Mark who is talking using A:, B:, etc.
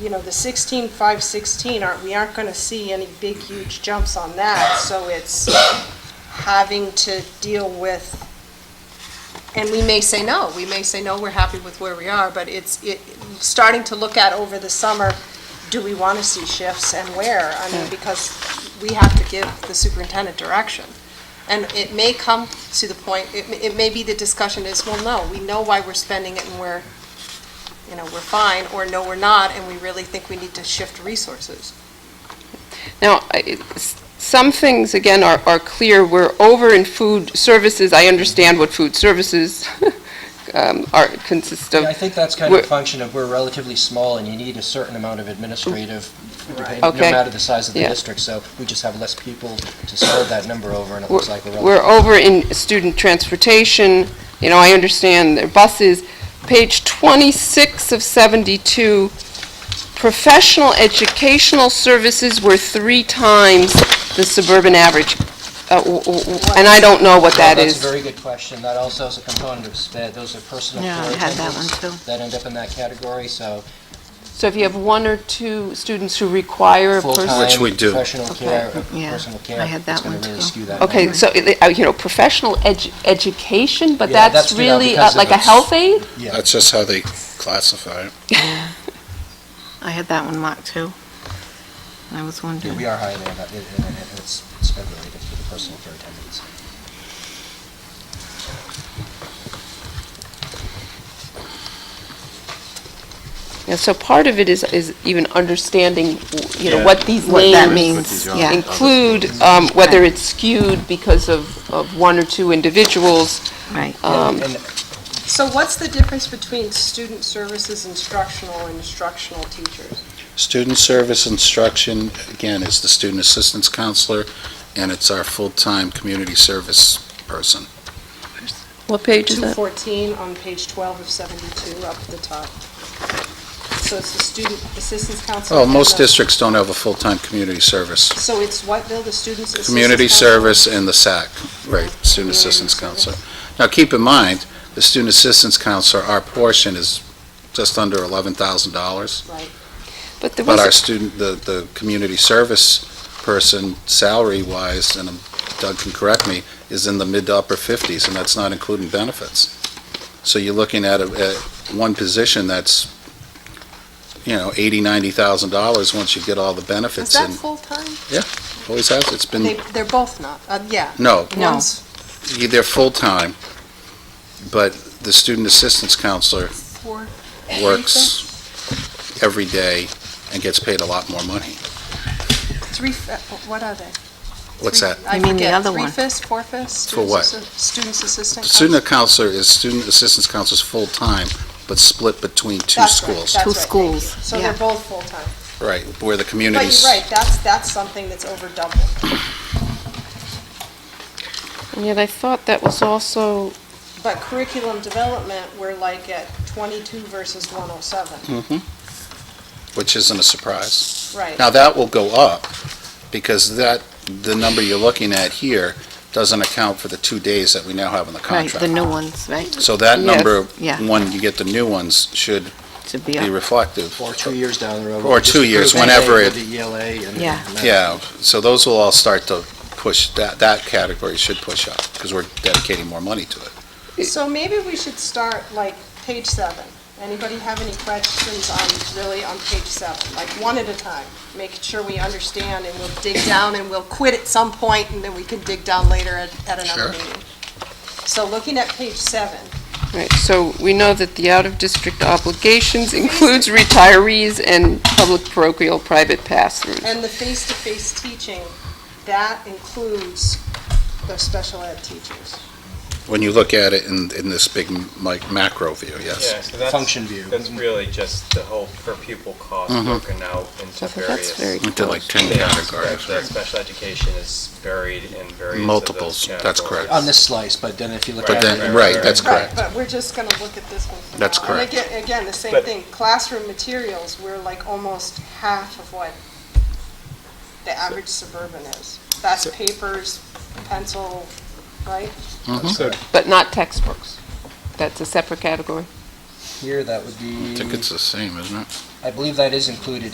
A: you know, the 16, 5, 16, aren't, we aren't going to see any big, huge jumps on that. So it's having to deal with, and we may say no, we may say no, we're happy with where we are, but it's, it, starting to look at over the summer, do we want to see shifts and where? I mean, because we have to give the superintendent direction. And it may come to the point, it, it may be the discussion is, well, no, we know why we're spending it and we're you know, we're fine, or no, we're not, and we really think we need to shift resources.
B: Now, I- it's- some things, again, are are clear. We're over in food services. I understand what food services um, are, consist of.
C: Yeah, I think that's kind of a
B: We're-
C: function of we're relatively small and you need a certain amount of administrative, depend- no
B: Okay.
C: matter the size of the
B: Yeah.
C: district, so we just have less people to spread that number over and it
B: We're
C: looks like we're
B: we're
C: relatively.
B: over in student transportation, you know, I understand their buses. Page 26 of 72, professional educational services were three times the suburban average. Uh, w- w- w- And I don't know what that
C: Well,
B: is.
C: That's a very good question. That also is a component of sped. Those are personal
D: Yeah,
C: care
D: I had that one
C: attendants
D: too.
C: that end up in that category, so
B: So if you have one or two students who require a person...
C: full-time,
E: Which we do.
C: professional care, uh,
D: Yeah,
C: personal
D: I
C: care.
D: had
C: it's
D: that
C: gonna
D: one
C: really
D: too.
C: skew that
B: Okay,
C: number.
B: so, it- uh, you know, professional edu- education, but
C: Yeah,
B: that's
C: that's too bad
B: really uh,
C: because
B: like a
C: if it's-
B: health aid?
C: Yeah.
E: That's just how they classify it.
D: I had that one marked too. I was
C: Yeah,
D: wondering.
C: we are high there, and that- and- and- and it's sped related to the personal care attendants.
B: Yeah, so part of it is, is even understanding, w- you know,
E: Yeah.
B: what these
D: What that
B: names
D: means,
E: Yeah.
D: yeah.
B: include, um, whether it's skewed because of, of one or two individuals.
D: Right.
B: Um,
C: And
A: So what's the difference between student services instructional and instructional teachers?
E: Student service instruction, again, is the student assistance counselor, and it's our full-time community service person.
B: What page is that?
A: 214 on page 12 of 72, up at the top. So it's the student assistance counselor.
E: Well, Oh, most
A: and the-
E: districts don't have a full-time community service.
A: So it's what, Bill, the students assistance?
E: Community
A: counselor?
E: service and the SAC, right, student assistance counselor. Now, keep in mind, the student assistance counselor, our portion is just under $11,000.
A: Right.
B: But there
E: But our
B: was,
E: student, the, the community service person, salary-wise, and Doug can correct me, is in the mid to upper 50s, and that's not including benefits. So you're looking at, a at one position that's, you know, 80, 90,000 dollars once you get all the
A: Is
E: benefits,
A: that
E: and
A: full-time?
E: always has, it's
A: They,
E: been,
A: they're both not, uh, yeah.
E: no,
D: No.
A: One's-
E: you- they're full-time, but the student assistance counselor
A: Four.
E: works every day and gets paid a lot more money.
A: Three, fi- what are they?
E: What's
A: Three-
E: that?
A: I
D: You mean the
A: forget,
D: other one.
A: Three-fifths, four-fifths?
E: For what?
A: Students assistant.
E: The Student counselor is, student assistance counselor is full-time, but split between two
A: That's right,
E: schools.
A: that's
D: Two
A: right, thank
D: schools,
A: you. So
D: yeah.
A: they're both full-time.
E: Right, where the
A: But
E: communities.
A: you're right, that's, that's something that's over double.
B: and yet I thought that was also,
A: But curriculum development, we're like at 22 versus 107,
E: Mhm. Which isn't a surprise.
A: right?
E: Now, that will go up, because that, the number you're looking at here doesn't account for the two days that we now have in the
D: Right, the
E: contract.
D: new ones, right?
E: So that
B: Yes,
E: number,
D: yeah.
E: when you get the new ones, should
D: To be
E: be
D: up.
E: reflective.
C: Or two years down the road.
E: Or two years,
C: Just approve
E: whenever
C: anything
E: it-
C: with The ELA and.
D: Yeah.
C: and that-
E: Yeah, so those will all start to push, that, that category should push up, because we're dedicating more money to it.
A: So maybe we should start like page seven. Anybody have any questions on, really on page seven? Like one at a time, making sure we understand and we'll dig down and we'll quit at some point and then we can dig down later at, at
E: Sure.
A: another meeting. So looking at page seven,
B: right, so we know that the out-of-district obligations includes retirees and public parochial private pass-throughs.
A: and the face-to-face teaching, that includes the special ed teachers.
E: when you look at it in, in this big, like, macro view,
F: Yeah,
E: yes.
F: so that's.
C: Function view. Mm-hmm.
F: That's really just the whole per pupil cost
E: Mhm.
F: broken out into
B: So I think
F: various.
B: that's very
E: Into like ten
F: things,
E: categories,
F: but The
E: right?
F: special education is buried in various of
E: Multiples,
F: those
E: that's
F: categories.
E: correct.
C: On this slice, but then if you look
F: But
C: at
F: then-
C: it.
E: right, that's
A: Right,
E: Correct.
A: but we're just going to look at this one for now.
E: That's correct.
A: And again, again, the same
F: But-
A: thing, classroom materials, we're like almost half of what the average suburban is. That's papers, pencil, right?
E: Mhm.
B: But not textbooks. That's a separate category.
C: Here, that would
E: I
C: be,
E: think it's the same, isn't it?
C: I believe that is included